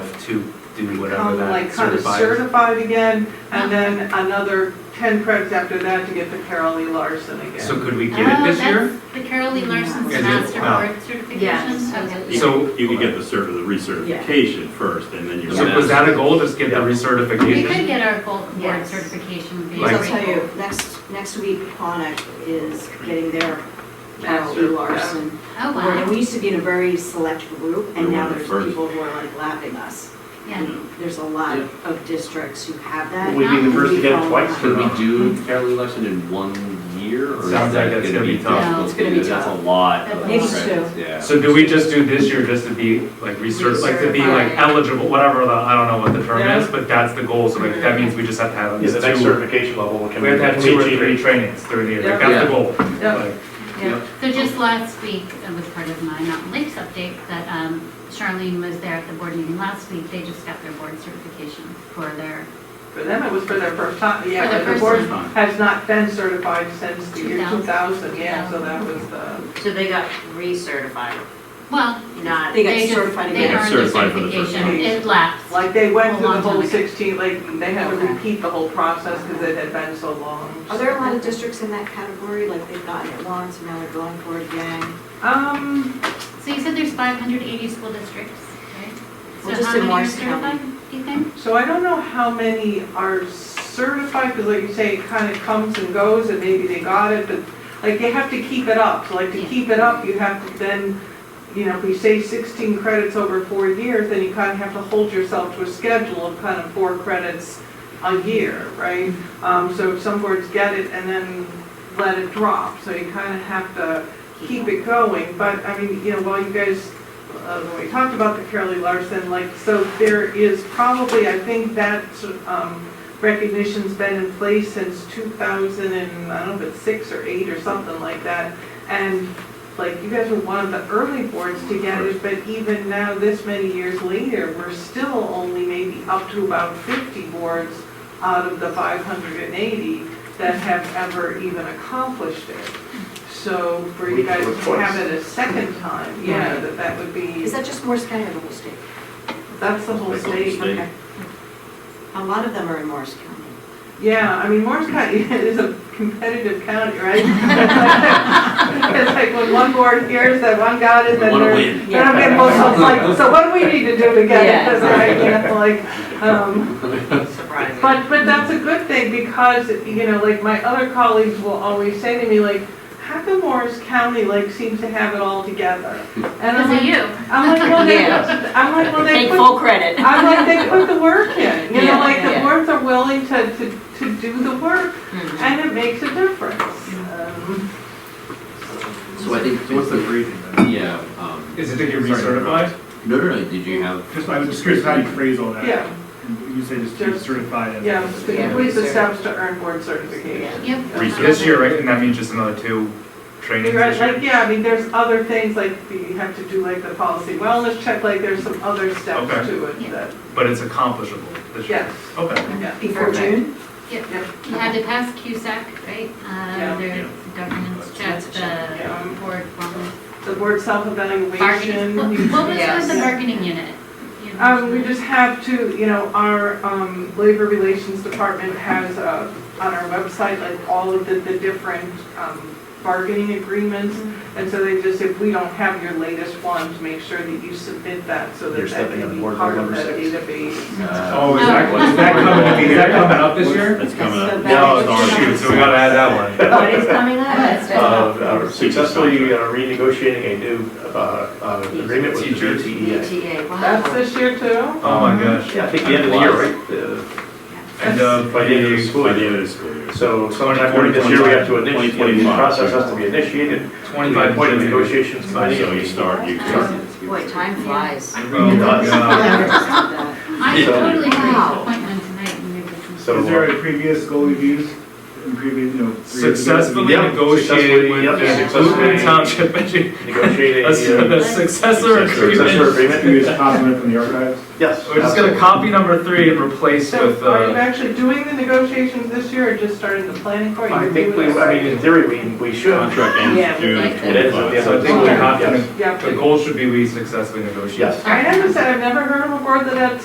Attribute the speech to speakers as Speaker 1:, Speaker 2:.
Speaker 1: to do whatever
Speaker 2: Become,
Speaker 1: that
Speaker 2: like kind of
Speaker 1: certifies.
Speaker 2: certified again, and then another ten credits after that to get the Carol E. Larson
Speaker 1: So
Speaker 2: again.
Speaker 1: could we get it this
Speaker 3: Oh,
Speaker 1: year?
Speaker 3: that's The Carol Lee Larson's
Speaker 1: Is it?
Speaker 3: master
Speaker 1: Wow.
Speaker 3: board certification?
Speaker 4: Yes.
Speaker 3: Okay.
Speaker 4: Yeah.
Speaker 1: So,
Speaker 5: You could get the cert, the recertification first, and then you're.
Speaker 1: so was that a goal, just get the
Speaker 3: We could
Speaker 1: recertification?
Speaker 3: get our full board
Speaker 4: Yes.
Speaker 3: certification.
Speaker 6: So I'll
Speaker 3: via-
Speaker 6: tell you, next, next week, Quonic is getting their Carol E.
Speaker 2: Master, yeah.
Speaker 6: Larson.
Speaker 3: Oh,
Speaker 6: award. And
Speaker 3: wow,
Speaker 6: we used to be in a very select group, and
Speaker 5: We're
Speaker 6: now
Speaker 5: one of the
Speaker 6: there's
Speaker 5: first.
Speaker 6: people who are like lapping us.
Speaker 3: yeah.
Speaker 6: And There's a lot of districts who have that.
Speaker 7: We'd be the first to get it twice.
Speaker 5: Could we do Carol election in one year? or is
Speaker 1: Sounds
Speaker 5: that
Speaker 1: like it's gonna be tough.
Speaker 5: difficult?
Speaker 6: No, it's gonna be
Speaker 5: That's
Speaker 6: tough.
Speaker 5: a lot. of
Speaker 6: Maybe
Speaker 5: credits, Yeah.
Speaker 1: So do we just do this year just to be like recert, like to be like
Speaker 3: Recertified.
Speaker 1: eligible, whatever the, I don't know what the term
Speaker 2: Yeah.
Speaker 1: is, but that's the goal, so like that means we just have to have
Speaker 7: Yeah, the
Speaker 1: these
Speaker 7: next
Speaker 1: two.
Speaker 7: certification level can
Speaker 1: We
Speaker 7: be
Speaker 1: have to have two or
Speaker 5: E.
Speaker 7: teaching.
Speaker 1: three trainings during the year, like
Speaker 2: Yeah.
Speaker 1: that's the goal.
Speaker 2: Yeah.
Speaker 1: Like,
Speaker 3: Yeah, so just last week, it was part of my Mountain Lakes update, that um, Charlene was there at the board meeting last week. They just got their board certification for their,
Speaker 2: For them, it was for their first time, yeah,
Speaker 3: For their
Speaker 2: but the
Speaker 3: first
Speaker 2: board
Speaker 3: time.
Speaker 2: has not been certified since the year
Speaker 3: 2000.
Speaker 2: two thousand, yeah, so that was the.
Speaker 4: So they got recertified,
Speaker 3: well,
Speaker 4: not,
Speaker 6: They got
Speaker 3: they just,
Speaker 6: certified
Speaker 3: they
Speaker 6: again.
Speaker 3: earned their
Speaker 5: Certified for the first
Speaker 3: certification.
Speaker 2: time.
Speaker 3: It lapsed.
Speaker 2: Like, they went
Speaker 3: A
Speaker 2: through the
Speaker 3: long time
Speaker 2: whole
Speaker 3: ago.
Speaker 2: sixteen, like, they had to
Speaker 6: Okay.
Speaker 2: repeat the whole process because it had been so long.
Speaker 6: Are there a lot of districts in that category, like they've gotten it once, and now they're going for it again?
Speaker 2: Um,
Speaker 3: So you said there's 580 school districts, right?
Speaker 6: Well,
Speaker 3: So
Speaker 6: just
Speaker 3: how
Speaker 6: in
Speaker 3: many are
Speaker 6: Morris County.
Speaker 3: certified, do you think?
Speaker 2: so I don't know how many are certified, because like you say, it kind of comes and goes, and maybe they got it, but, like, they have to keep it up, so like, to
Speaker 3: Yeah.
Speaker 2: keep it up, you have to then, you know, if you say sixteen credits over four years, then you kind of have to hold yourself to a schedule of kind of four credits a year, right? Um, so some boards get it and then let it drop, so you kind of have to keep it going, but, I mean, you know, while you guys, uh, when we talked about the Carolee Larson, like, so there is probably, I think that, um, recognition's been in place since two thousand and, I don't know if it's six or eight or something like that, and, like, you guys were one of the early boards to get it, but even now, this many years later, we're still only maybe up to about fifty boards out of the five hundred and eighty that have ever even accomplished it. So for you
Speaker 7: We
Speaker 2: guys
Speaker 7: do it
Speaker 2: to have
Speaker 7: twice.
Speaker 2: it a second time, yeah, that that would be,
Speaker 6: Is that just Morris County or the whole state?
Speaker 2: that's the whole
Speaker 5: Like the
Speaker 2: state.
Speaker 5: state.
Speaker 6: Okay. A lot of them are in Morris County.
Speaker 2: Yeah, I mean, Morris County is a competitive county, right? It's like when one board hears that one got it,
Speaker 5: We
Speaker 2: then
Speaker 5: wanna
Speaker 2: they're,
Speaker 5: win.
Speaker 2: then I'm getting both sides like, so what do we need to do to get it?
Speaker 4: Yeah.
Speaker 2: Because I, you know, like, um,
Speaker 4: surprising.
Speaker 2: But, but that's a good thing because, you know, like my other colleagues will always say to me, like, how come Morris County like seems to have it all together? And I'm
Speaker 3: Because of
Speaker 2: like,
Speaker 3: you.
Speaker 2: I'm like, well, they,
Speaker 4: Yeah.
Speaker 2: I'm like, well, they
Speaker 4: Take
Speaker 2: put,
Speaker 4: full credit.
Speaker 2: I'm like, they put the work in. You know,
Speaker 4: Yeah,
Speaker 2: like the
Speaker 4: yeah.
Speaker 2: boards are willing to, to, to do the work
Speaker 4: Mhm.
Speaker 2: and it makes a difference. Um,
Speaker 5: So I think.
Speaker 7: What's the briefing then?
Speaker 5: Yeah, um,
Speaker 1: Is it to get
Speaker 7: Sorry,
Speaker 1: recertified?
Speaker 5: no, no, no, did you have? uh,
Speaker 7: Just, I was just curious how you phrase all that.
Speaker 2: Yeah,
Speaker 7: You say just be certified as.
Speaker 2: yeah, to
Speaker 6: Yeah.
Speaker 2: complete the steps to earn board certification.
Speaker 3: Yep.
Speaker 1: This year, right, and that means just another two trainings
Speaker 2: Right,
Speaker 1: this year?
Speaker 2: like, yeah, I mean, there's other things, like, you have to do, like, the policy wellness check, like, there's some other
Speaker 1: Okay.
Speaker 2: steps to it
Speaker 3: Yeah.
Speaker 2: that,
Speaker 1: But it's accomplishable this year?
Speaker 2: yes.
Speaker 1: Okay.
Speaker 2: yeah.
Speaker 6: Before June?
Speaker 3: You had to pass CUSAC, right?
Speaker 2: Yeah.
Speaker 3: Uh, Their governance check,
Speaker 2: Yeah.
Speaker 3: the um, board, wellness,
Speaker 2: The board
Speaker 3: bargaining. What what
Speaker 2: self-evaluation.
Speaker 3: was with the
Speaker 4: Yes.
Speaker 3: bargaining unit? You know,
Speaker 2: Um, we just have to, you know, our, um, labor relations department has, uh, on our website, like, all of the, the different, um, bargaining agreements.
Speaker 3: Mm-hmm.
Speaker 2: And so they just, if we don't have your latest one, to make sure that you submit that, so that
Speaker 7: You're
Speaker 2: that
Speaker 7: stepping
Speaker 2: can
Speaker 7: on
Speaker 2: be
Speaker 7: board
Speaker 2: part of
Speaker 7: number
Speaker 2: that
Speaker 7: six.
Speaker 2: database.
Speaker 5: Uh,
Speaker 1: Oh, is that,
Speaker 3: Oh.
Speaker 1: is that coming, is that coming up this year?
Speaker 5: That's coming up.
Speaker 6: That's the best.
Speaker 5: No, it's already-
Speaker 1: Oh, Shoot, so we gotta add that one.
Speaker 4: But it's coming up.
Speaker 7: Uh, uh, Successfully uh, renegotiating a new, uh, uh, agreement with the
Speaker 1: Teacher.
Speaker 7: VTA.
Speaker 4: VTA, wow.
Speaker 2: That's this year too?
Speaker 1: Oh my gosh.
Speaker 7: Yeah, I think the end of the year, right? Uh,
Speaker 1: And, uh,
Speaker 7: By the end of the
Speaker 5: By
Speaker 7: school
Speaker 5: the
Speaker 7: year.
Speaker 5: end of the school year.
Speaker 7: So sometime during this year, we have to initiate, the process has to be initiated.
Speaker 1: Twenty-five
Speaker 7: Point
Speaker 1: point
Speaker 7: of
Speaker 1: negotiation.
Speaker 7: negotiations. signing.
Speaker 5: So you start, you.
Speaker 4: Boy, time flies.
Speaker 1: Oh my god.
Speaker 3: I
Speaker 7: So-
Speaker 3: totally missed the
Speaker 4: Wow.
Speaker 3: appointment tonight. and maybe we can-
Speaker 7: So- uh,
Speaker 8: Is there a previous goal reviews and previous, you know? previous-
Speaker 1: Successfully
Speaker 7: Yep,
Speaker 1: negotiated
Speaker 7: successfully,
Speaker 1: with
Speaker 7: yep,
Speaker 1: the
Speaker 7: successfully
Speaker 1: Luton Township Engineer,
Speaker 7: Negotiate a,
Speaker 1: a su-
Speaker 7: uh,
Speaker 1: the successor
Speaker 7: successor
Speaker 1: agreement.
Speaker 7: agreement.
Speaker 8: Previous compliment from the archives?
Speaker 7: Yes.
Speaker 1: We're just gonna copy number three and replace with,
Speaker 2: So are you
Speaker 1: uh,
Speaker 2: actually doing the negotiations this year or just starting the planning for it?
Speaker 7: I
Speaker 2: You're
Speaker 7: think we,
Speaker 2: doing it
Speaker 7: I mean, in theory, we, we should.
Speaker 5: Contract
Speaker 4: Yeah,
Speaker 5: ends
Speaker 4: we
Speaker 5: June
Speaker 4: like that.
Speaker 7: It ends at the end
Speaker 1: so I think
Speaker 5: twenty-five.
Speaker 7: of the school
Speaker 1: we
Speaker 7: year,
Speaker 1: have
Speaker 7: yes.
Speaker 1: to,
Speaker 2: Yeah.
Speaker 1: the goal should be we successfully negotiate.
Speaker 7: Yes.
Speaker 2: I haven't said, I've never heard of a board that had